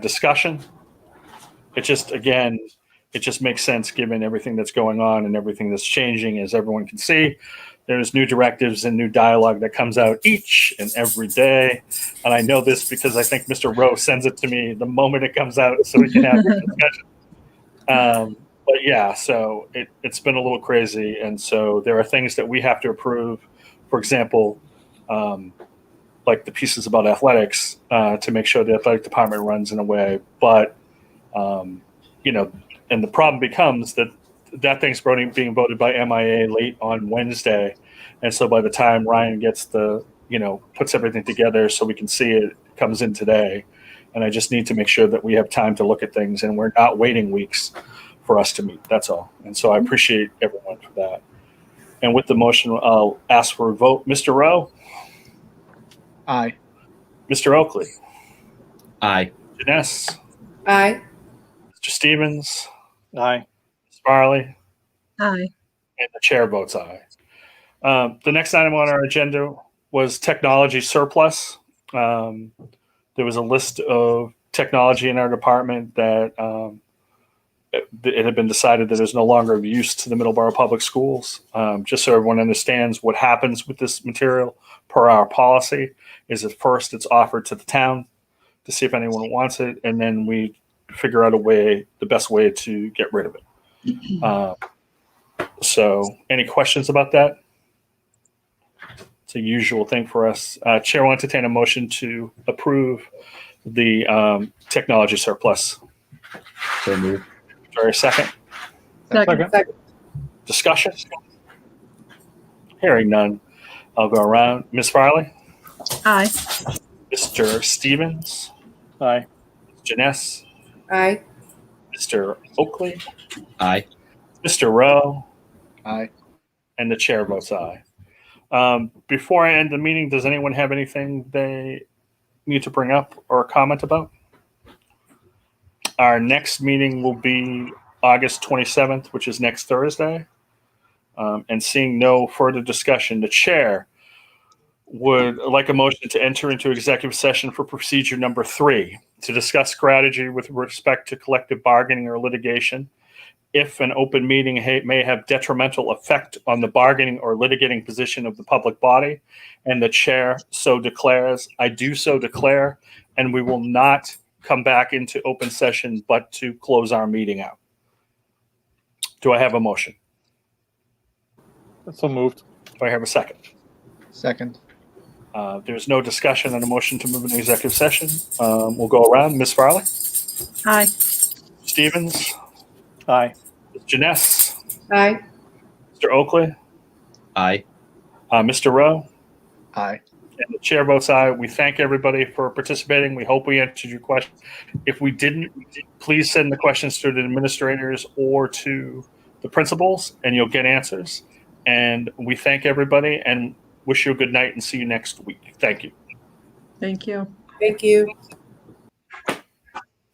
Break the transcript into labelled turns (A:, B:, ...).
A: discussion. It just, again, it just makes sense given everything that's going on and everything that's changing, as everyone can see. There's new directives and new dialogue that comes out each and every day. And I know this because I think Mr. Rowe sends it to me the moment it comes out so we can have this discussion. Um, but yeah, so it, it's been a little crazy. And so there are things that we have to approve. For example, um, like the pieces about athletics uh, to make sure the athletic department runs in a way. But um, you know, and the problem becomes that that thing's voting- being voted by MIA late on Wednesday, and so by the time Ryan gets the you know puts everything together so we can see it comes in today, and I just need to make sure that we have time to look at things and we're not waiting weeks for us to meet. That's all. And so I appreciate everyone for that. And with the motion, I'll ask for a vote. Mr. Rowe,
B: Aye.
A: Mr. Oakley,
C: Aye.
A: Janess,
D: Aye.
A: Mr. Stevens,
B: Aye.
A: Ms. Farley,
E: Aye.
A: and the chair votes aye. Um, the next item on our agenda was technology surplus. Um, there was a list of technology in our department that um, it, it had been decided that is no longer of use to the Middleborough Public Schools. Um, just so everyone understands what happens with this material per our policy is at first it's offered to the town to see if anyone wants it, and then we figure out a way, the best way to get rid of it. Um, so, any questions about that? It's a usual thing for us. Uh, Chair will entertain a motion to approve the um, technology surplus.
C: So moved.
A: Very second
E: Second.
A: discussion. Hearing none, I'll go around. Ms. Farley,
E: Aye.
A: Mr. Stevens,
B: Aye.
A: Janess,
D: Aye.
A: Mr. Oakley,
C: Aye.
A: Mr. Rowe,
B: Aye.
A: and the chair votes aye. Um, before I end the meeting, does anyone have anything they need to bring up or comment about? Our next meeting will be August 27th, which is next Thursday. Um, and seeing no further discussion, the chair would like a motion to enter into executive session for procedure number three to discuss strategy with respect to collective bargaining or litigation if an open meeting ha- may have detrimental effect on the bargaining or litigating position of the public body, and the chair so declares, I do so declare, and we will not come back into open session but to close our meeting out. Do I have a motion?
B: So moved.
A: Do I have a second?
B: Second.
A: Uh, there's no discussion on a motion to move into executive session. Um, we'll go around. Ms. Farley,
E: Aye.
A: Stevens,
B: Aye.
A: Ms. Janess,
D: Aye.
A: Mr. Oakley,
C: Aye.
A: uh, Mr. Rowe.
B: Aye.
A: And the chair votes aye. We thank everybody for participating. We hope we answered your question. If we didn't, please send the questions to the administrators or to the principals, and you'll get answers. And we thank everybody and wish you a good night and see you next week. Thank you.
E: Thank you.
D: Thank you.